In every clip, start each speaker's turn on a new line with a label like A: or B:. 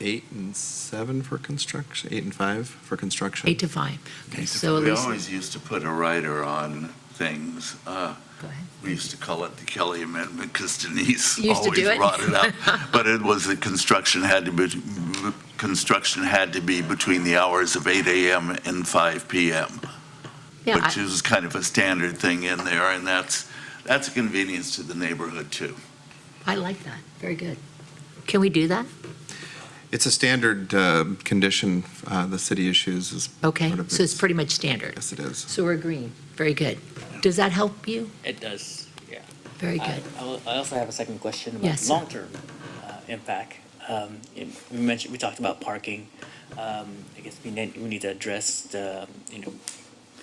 A: eight and seven for construction, eight and five for construction.
B: Eight to five. Okay, so
C: We
B: Elise,
C: always used to put a rider on things. Uh,
B: go ahead.
C: We used to call it the Kelly Amendment because Denise
B: You used to
C: always
B: do it?
C: brought it up. But it was the construction had to be, construction had to be between the hours of 8 AM and 5 PM,
B: Yeah,
C: which
B: I-
C: is kind of a standard thing in there, and that's, that's a convenience to the neighborhood, too.
B: I like that. Very good. Can we do that?
A: It's a standard uh, condition uh, the city issues is.
B: Okay,
A: part of
B: so it's
A: its-
B: pretty much standard.
A: Yes, it is.
B: So we're agreeing. Very good. Does that help you?
D: It does.
B: Very
D: I
B: good.
D: I will- I also have a second question about
B: Yes, sir.
D: long-term uh, impact. Um, in- We mentioned, we talked about parking. Um, I guess we need, we need to address the, you know,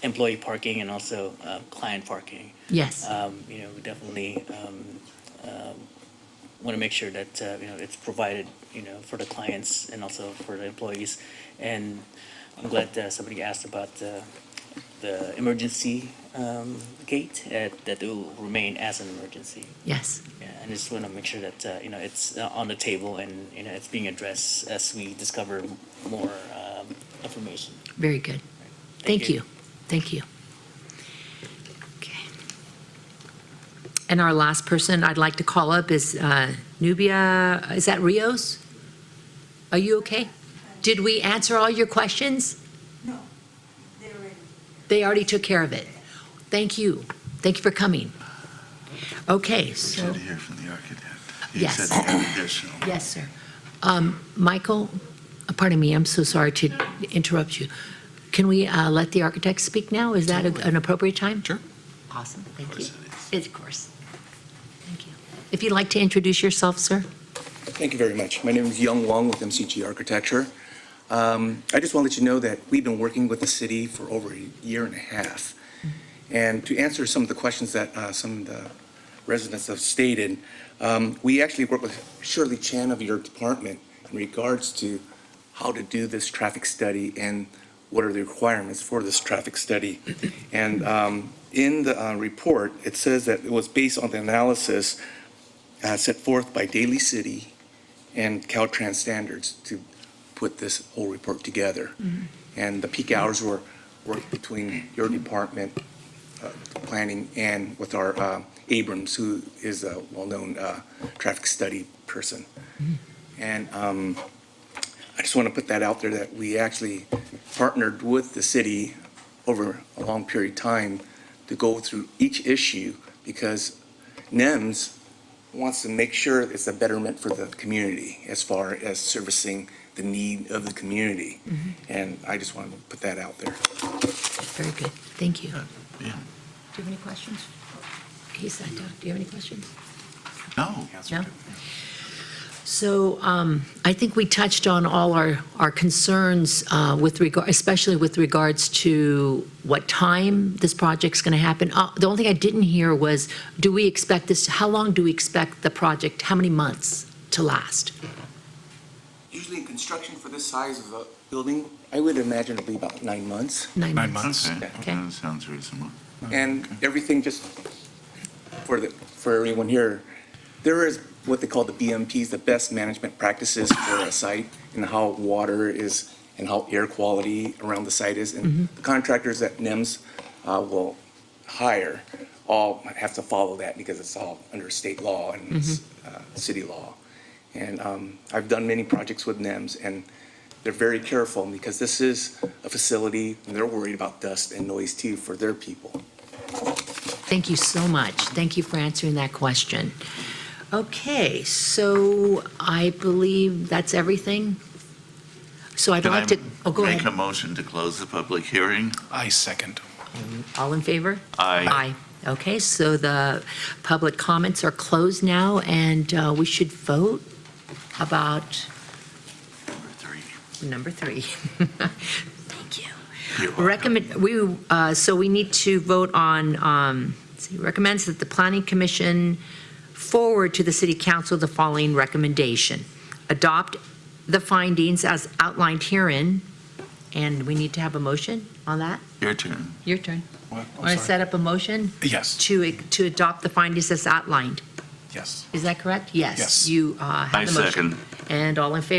D: employee parking and also uh, client parking.
B: Yes.
D: Um, You know, we definitely want to make sure that, uh, you know, it's provided, you know, for the clients and also for the employees. And I'm glad uh, somebody asked about uh, the emergency um, gate, uh, that it will remain as an emergency.
B: Yes.
D: Yeah, and I just want to make sure that, uh, you know, it's uh, on the table and, you know, it's being addressed as we discover more um, information.
B: Very good. Thank you. Thank you. Okay. And our last person I'd like to call up is uh, Nubia, is that Rios? Are you okay? Did we answer all your questions?
E: No, they're ready.
B: They already took care of it. Thank you. Thank you for coming. Okay, so,
C: Should hear from the architect.
B: Yes.
C: He said an additional.
B: yes, sir. Um, Michael, uh, pardon me, I'm so sorry to interrupt you. Can we uh, let the architect speak now? Is that a- an appropriate time?
A: Sure.
B: Awesome, thank you.
C: course it is.
B: Of course. Thank you. If you'd like to introduce yourself, sir?
F: Thank you very much. My name is Young Wong with MCG Architecture. Um, I just want to let you know that we've been working with the city for over a year and a half. And to answer some of the questions that uh, some of the residents have stated, um, we actually work with Shirley Chan of your department in regards to how to do this traffic study and what are the requirements for this traffic study. And um, in the uh, report, it says that it was based on the analysis uh, set forth by Daly City and Caltrans standards to put this whole report together. And the peak hours were worked between your department, uh, planning, and with our uh, Abrams, who is a well-known uh, traffic study person. And um, I just want to put that out there that we actually partnered with the city over a long period of time to go through each issue because NEMS wants to make sure it's a betterment for the community as far as servicing the need of the community. And I just wanted to put that out there.
B: Very good, thank you. Do you
C: Uh, yeah.
B: have any questions? He sat down, do you have any questions?
C: No.
B: No? So um, I think we touched on all our, our concerns uh, with regard, especially with regards to what time this project's going to happen. Uh, The only thing I didn't hear was, do we expect this, how long do we expect the project, how many months to last?
F: Usually in construction for this size of a building, I would imagine it'd be about nine months.
C: Nine months? Okay,
B: Okay.
C: that sounds reasonable.
F: And everything, just for the, for everyone here, there is what they call the BMPs, the best management practices for a site and how water is and how air quality around the site is. And the contractors that NIMS uh, will hire all have to follow that because it's all under state law and s- uh, city law. And um, I've done many projects with NIMS and they're very careful because this is a facility and they're worried about dust and noise too for their people.
B: Thank you so much. Thank you for answering that question. Okay, so I believe that's everything. So I'd
C: Can I
B: like to, oh, go
C: Make a
B: ahead.
C: motion to close the public hearing.
G: I second.
B: All in favor?
C: Aye.
B: Aye. Okay, so the public comments are closed now, and uh, we should vote about
C: Number three.
B: number three. Thank you.
C: You're welcome.
B: Recommend, we, uh, so we need to vote on, um, let's see, recommends that the planning commission forward to the city council the following recommendation. Adopt the findings as outlined herein, and we need to have a motion on that?
C: Your turn.
B: Your turn.
G: What?
B: Want
G: I'm
B: to
G: sorry.
B: set up a motion
G: Yes,
B: to, to adopt the findings as outlined?
G: yes.
B: Is that correct? Yes.
G: Yes.
B: You uh,
C: I
B: have the motion.
C: second.
B: And all in favor?